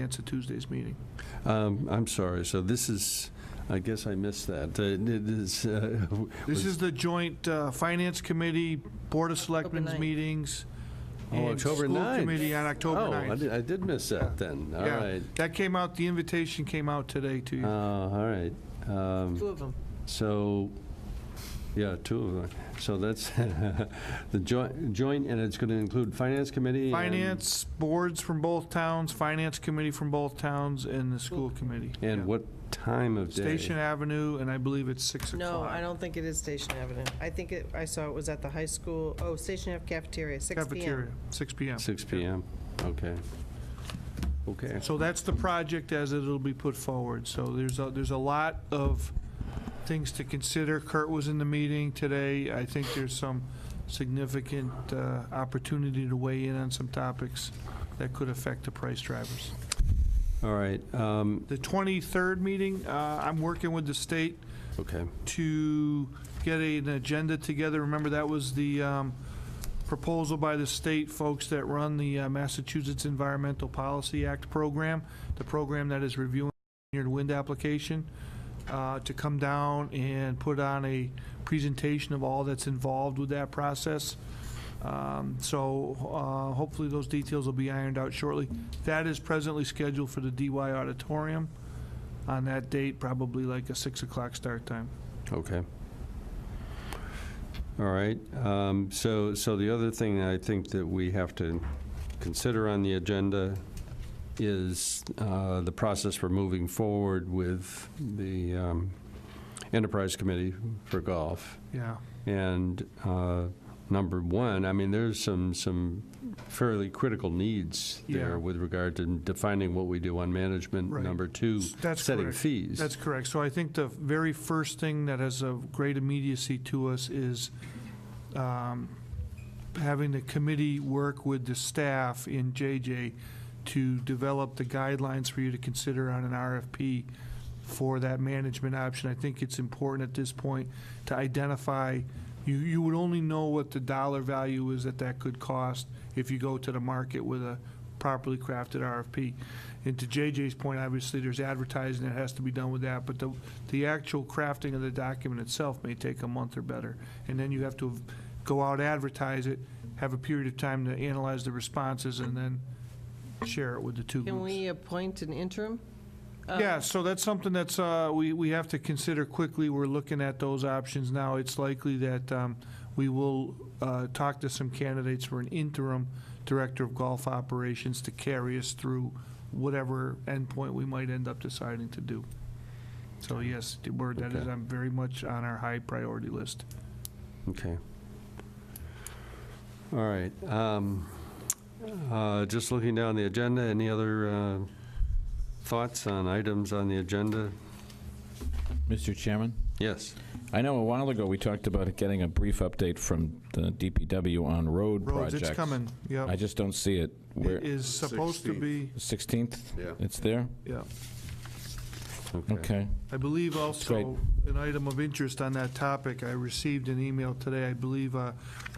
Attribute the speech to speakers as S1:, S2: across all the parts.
S1: answer Tuesday's meeting.
S2: Um, I'm sorry, so this is, I guess I missed that. Uh, It is, uh,
S1: This is the joint uh, Finance Committee, Board of Selectmen's
S3: ninth.
S1: meetings.
S2: Oh,
S1: and
S2: October
S1: School
S2: 9th.
S1: Committee on October
S2: oh, I
S1: 9th.
S2: did- I did miss that then, all
S1: Yeah,
S2: right.
S1: That came out, the invitation came out today to
S2: Uh,
S1: you.
S2: All right, Um,
S3: Two of them.
S2: so, yeah, two of them. So that's the joint, joint, and it's going to include Finance Committee? and-
S1: Finance boards from both towns, Finance Committee from both towns, and the School Committee. Yeah.
S2: And what time of day?
S1: Station Avenue, and I believe it's 6 o'clock.
S3: No, I don't think it is Station Avenue. I think it, I saw it was at the high school, oh, Station Ave cafeteria, six
S1: Cafeteria,
S3: PM.
S1: 6 PM.
S2: Six PM, okay. Okay,
S1: So that's the project as it'll be put forward. So there's a, there's a lot of things to consider. Kurt was in the meeting today. I think there's some significant uh, opportunity to weigh in on some topics that could affect the price drivers.
S2: all right, um,
S1: The 23rd meeting, uh, I'm working with the state
S2: okay.
S1: to get an agenda together. Remember, that was the um, proposal by the state folks that run the uh, Massachusetts Environmental Policy Act program, the program that is reviewing your wind application, uh, to come down and put on a presentation of all that's involved with that process. Um, So uh, hopefully those details will be ironed out shortly. That is presently scheduled for the DY auditorium on that date, probably like a 6 o'clock start time.
S2: Okay. All right, um, so, so the other thing I think that we have to consider on the agenda is uh, the process for moving forward with the um, Enterprise Committee for Golf.
S1: Yeah.
S2: And uh, number one, I mean, there's some, some fairly critical needs
S1: Yeah.
S2: there with regard to defining what we do on management.
S1: Right.
S2: Number two,
S1: That's
S2: setting
S1: correct.
S2: fees.
S1: That's correct. So I think the very first thing that has a great immediacy to us is um, having the committee work with the staff in JJ to develop the guidelines for you to consider on an RFP for that management option. I think it's important at this point to identify, you, you would only know what the dollar value is that that could cost if you go to the market with a properly crafted RFP. And to JJ's point, obviously, there's advertising that has to be done with that, but the, the actual crafting of the document itself may take a month or better. And then you have to go out, advertise it, have a period of time to analyze the responses, and then share it with the two groups.
S3: Can we appoint an interim? Uh,
S4: Um,
S1: Yeah, so that's something that's, uh, we, we have to consider quickly. We're looking at those options now. It's likely that um, we will uh, talk to some candidates for an interim director of golf operations to carry us through whatever endpoint we might end up deciding to do. So yes, the word that is,
S2: Okay.
S1: I'm very much on our high priority list.
S2: Okay. All right. um, uh, Just looking down the agenda, any other uh, thoughts on items on the agenda?
S4: Mr. Chairman,
S2: Yes.
S4: I know a while ago we talked about getting a brief update from the DPW on road
S1: Roads,
S4: projects.
S1: it's coming,
S4: I
S1: yep.
S4: just don't see it.
S1: It
S4: Where,
S1: is supposed to be,
S4: 16th?
S5: Yeah.
S4: It's there?
S1: yeah.
S4: Okay.
S1: I believe also, an item of interest on that topic, I received an email today, I believe, uh,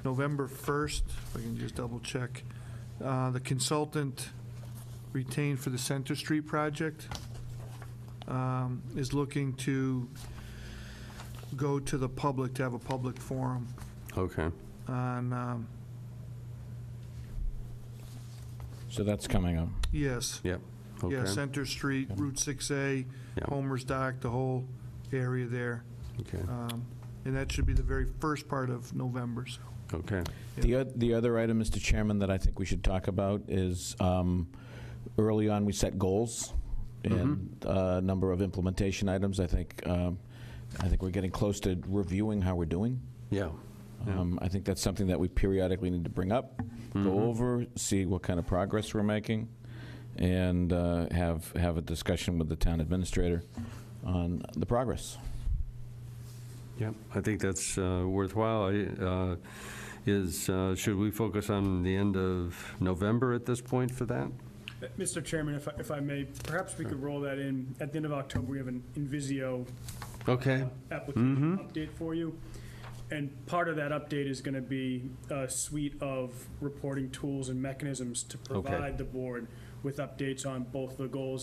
S1: November 1st, if I can just double-check, the consultant retained for the Center Street project um, is looking to go to the public, to have a public forum
S2: Okay.
S1: on, um,
S4: So that's coming up.
S1: yes,
S2: Yep.
S1: yeah,
S2: Okay.
S1: Center Street, Route 6A,
S2: Yeah,
S1: Homer's Dock, the whole area there.
S2: Okay.
S1: Um, And that should be the very first part of November, so.
S2: Okay.
S4: The, oth- the other item, Mr. Chairman, that I think we should talk about is um, early on, we set goals
S1: Mm-hmm.
S4: and a number of implementation items. I think, um, I think we're getting close to reviewing how we're doing.
S2: Yeah. Yeah.
S4: Um, I think that's something that we periodically need to bring up, go over, see what kind of progress we're making, and uh, have have a discussion with the town administrator on the progress.
S2: Yep. I think that's uh, worthwhile. I, uh, Is, uh, should we focus on the end of November at this point for that?
S6: Mr. Chairman, if I- if I may, perhaps we could roll that in. At the end of October, we have an Invisio
S2: Okay.
S6: application update for you. And part of that update is going to be a suite of reporting tools and mechanisms to provide the board with updates on both the goals